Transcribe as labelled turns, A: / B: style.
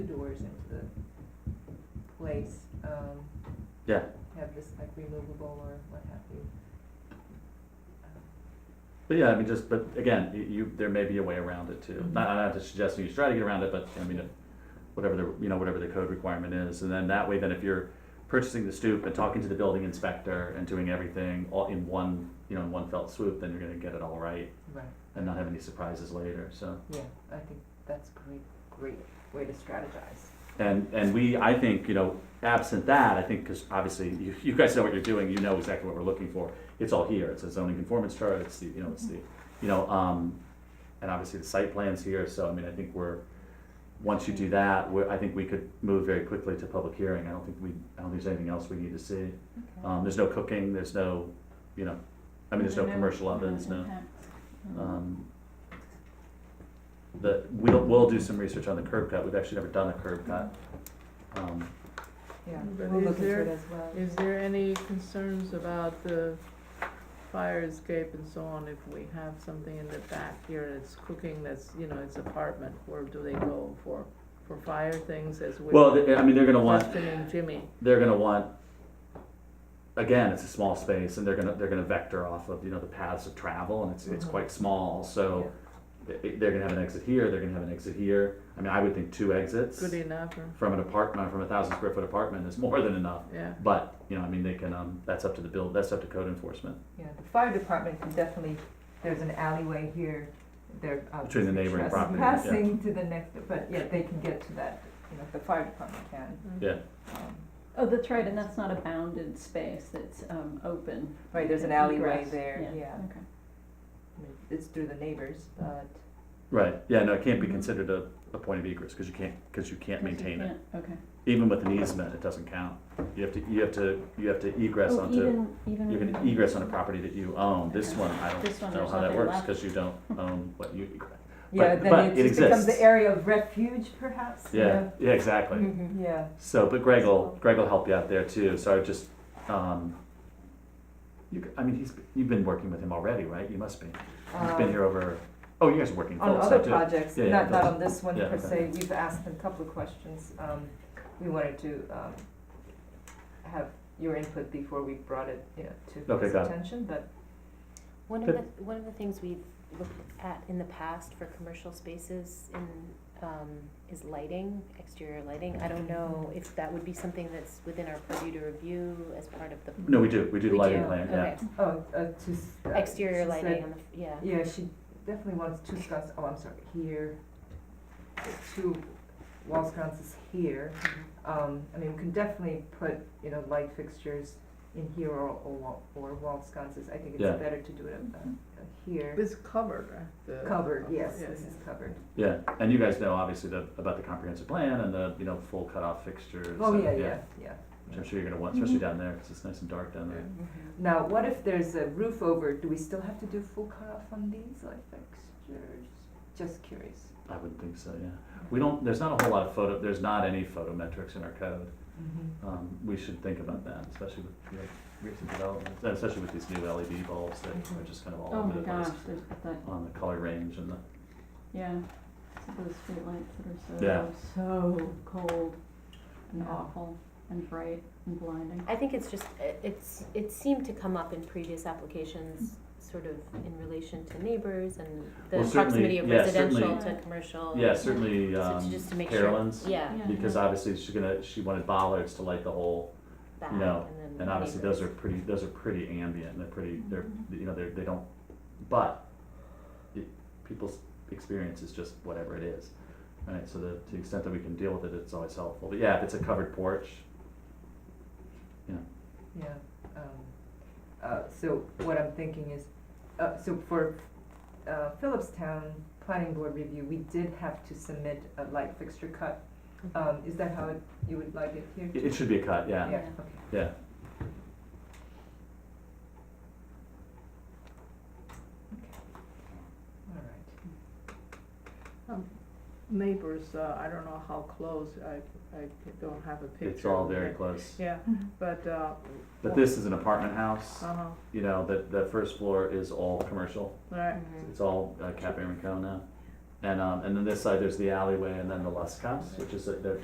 A: doors into the place, um,
B: Yeah.
A: have this like removable or what have you. Um,
B: But yeah, I mean, just, but again, you, you, there may be a way around it too. Not, I'm not suggesting you try to get around it, but I mean, whatever the, you know, whatever the code requirement is. And then that way, then if you're purchasing the stoop and talking to the building inspector and doing everything all in one, you know, in one felt swoop, then you're gonna get it all right
A: Right,
B: and not have any surprises later, so.
A: yeah, I think that's a great, great way to strategize.
B: And, and we, I think, you know, absent that, I think, because obviously you, you guys know what you're doing, you know exactly what we're looking for. It's all here, it's a zoning conformance chart, it's the, you know, it's the, you know, um, and obviously the site plan's here, so I mean, I think we're, once you do that, we, I think we could move very quickly to public hearing. I don't think we, I don't think there's anything else we need to see. Um, there's no cooking, there's no, you know, I mean, there's no commercial ovens, no. Um, The, we'll, we'll do some research on the curb cut, we've actually never done a curb cut. Um,
A: Yeah,
C: But
A: we'll
C: is
A: look into
C: there-
A: it as well.
C: Is there any concerns about the fire escape and so on if we have something in the back here and it's cooking that's, you know, it's apartment, where do they go for, for fire things as with
B: Well, th- I mean, they're gonna want,
C: Justin and Jimmy?
B: they're gonna want, again, it's a small space and they're gonna, they're gonna vector off of, you know, the paths of travel and it's, it's
A: Mhm.
B: quite small, so they- they're gonna have an exit here, they're gonna have an exit here. I mean, I would think two exits
C: Good enough, or,
B: from an apartment, from a thousand square foot apartment is more than enough.
C: yeah,
B: But, you know, I mean, they can, um, that's up to the build, that's up to code enforcement.
A: Yeah, the fire department can definitely, there's an alleyway here, they're obviously
B: Between the neighboring property, yeah.
A: trespassing to the next, but yeah, they can get to that, you know, the fire department can.
B: Yeah.
A: um,
D: Oh, that's right, and that's not a bounded space, that's, um, open.
A: Right, there's an
D: Egress,
A: alleyway there, yeah,
D: Okay.
A: I mean, it's through the neighbors, but,
B: Right, yeah, no, it can't be
D: Mhm.
B: considered a, a point of egress, cause you can't, cause you can't
D: Because you
B: maintain it.
D: can't- Okay.
B: Even with an easement, it doesn't count. You have to, you have to, you have to egress
D: Oh,
B: onto.
D: even, even.
B: You can
D: with-
B: egress on a property that you own, this one, I
D: This one,
B: don't know
D: there's
B: how that
D: nothing
B: works,
D: left.
B: cause you don't own what you egress.
A: yeah,
B: But- but
A: then
B: it
A: it just becomes the
B: exists.
A: area of refuge perhaps, you
B: Yeah,
A: know?
B: yeah,
D: Mm-hmm.
B: exactly.
A: Yeah,
B: So, but Greg will, Greg will help you out there too, so I just, um, you, c- I mean, he's, you've been working with him already, right? You must be. He's
D: Uh,
B: been
A: Um,
B: here over, oh, you guys are working
A: On
B: full
A: other
B: time too.
A: projects,
B: Yeah, yeah,
A: not, not
B: those.
A: on this one
B: Yeah,
A: per
B: okay.
A: se, we've asked a couple of questions, um, we wanted to, um, have your input before we brought it, you know, to
B: Okay,
A: his
B: got it.
A: attention, but
E: One of
B: Good.
E: the, one of the things we've looked at in the past for commercial spaces in, um, is lighting, exterior lighting. I don't know if that would be something that's within our purview to review as part of the.
B: No, we do, we do the
E: We
B: lighting
E: do,
B: plan, yeah.
E: okay.
A: Oh, uh, two. s- uh,
E: Exterior
A: she said-
E: lighting on the, yeah.
A: Yeah, she definitely wants two sconces, oh, I'm sorry, here, two wall sconces here.
C: Mm-hmm.
A: Um, I mean, we can definitely put, you know, light fixtures in here or, or, wall- or wall sconces. I think it's
B: Yeah.
A: better to do it,
C: Mm-hmm.
A: uh, uh, here,
C: it's covered, right? The-
A: covered, yes,
C: Yeah,
A: this
C: yeah.
A: is covered.
B: Yeah, and you guys know obviously the, about the comprehensive plan and the, you know, full cutoff fixtures.
A: Oh,
B: and-
A: yeah, yeah, yeah.
B: Which I'm sure you're gonna want,
E: Mm-hmm.
B: especially down there, cause it's nice and dark down there.
C: Mm-hmm.
A: Now, what if there's a roof over, do we still have to do full cutoff on these light fixtures? Just curious.
B: I wouldn't think so, yeah. We don't, there's not a whole lot of photo, there's not any photometrics in our code.
C: Mm-hmm.
B: Um, we should think about that, especially with, you know, recent developments, and especially with these new LED bulbs that
E: Mm-hmm.
B: are just kind of all
D: Oh
B: over
D: my
B: the
D: gosh,
B: place
D: there's that,
B: on the color range and the,
D: yeah, it's those streetlights that
B: Yeah.
D: are so, so cold and
A: Yeah.
D: awful and bright and blinding.
E: I think it's just, it- it's, it seemed to come up in previous applications, sort of in relation to neighbors and
B: Well,
E: the
B: certainly-
E: proximity of
B: yeah,
E: residential
D: certainly.
E: to commercial.
B: yeah, certainly,
E: So
B: um,
E: to just to make sure.
B: Carolyn's.
E: Yeah,
D: Yeah.
B: Because obviously she's gonna, she wanted bollards to light the whole,
E: that,
B: You
E: and
B: know,
E: then
B: and obviously those are
E: neighbors.
B: pretty, those are pretty ambient, they're pretty, they're,
D: Mhm.
B: you know, they're, they don't, but it, people's experience is just whatever it is, right? So the, to the extent that we can deal with it, it's always helpful, but yeah, if it's a covered porch,
A: Yeah, um, uh, so what I'm thinking is, uh, so for, uh, Phillipstown Planning Board review, we did have to submit a light fixture cut.
C: Uh,
A: Um, is that how it, you would like it here?
B: it, it should be a cut, yeah,
A: Yeah,
E: Yeah.
A: okay.
B: yeah.
A: All right.
C: Neighbors, uh, I don't know how close, I, I don't have a picture.
B: It's all
C: of
B: very
C: it.
B: close.
C: Yeah,
A: Mm-hmm.
C: but, uh,
B: But this is an apartment house,
C: uh-huh,
B: you know, the, the first floor is all commercial.
C: right.
A: Mm-hmm.
E: Mhm.
B: It's all uh, Cafe Rincon now. And, um, and then this side, there's the alleyway and then the Lust House, which is, a- they're,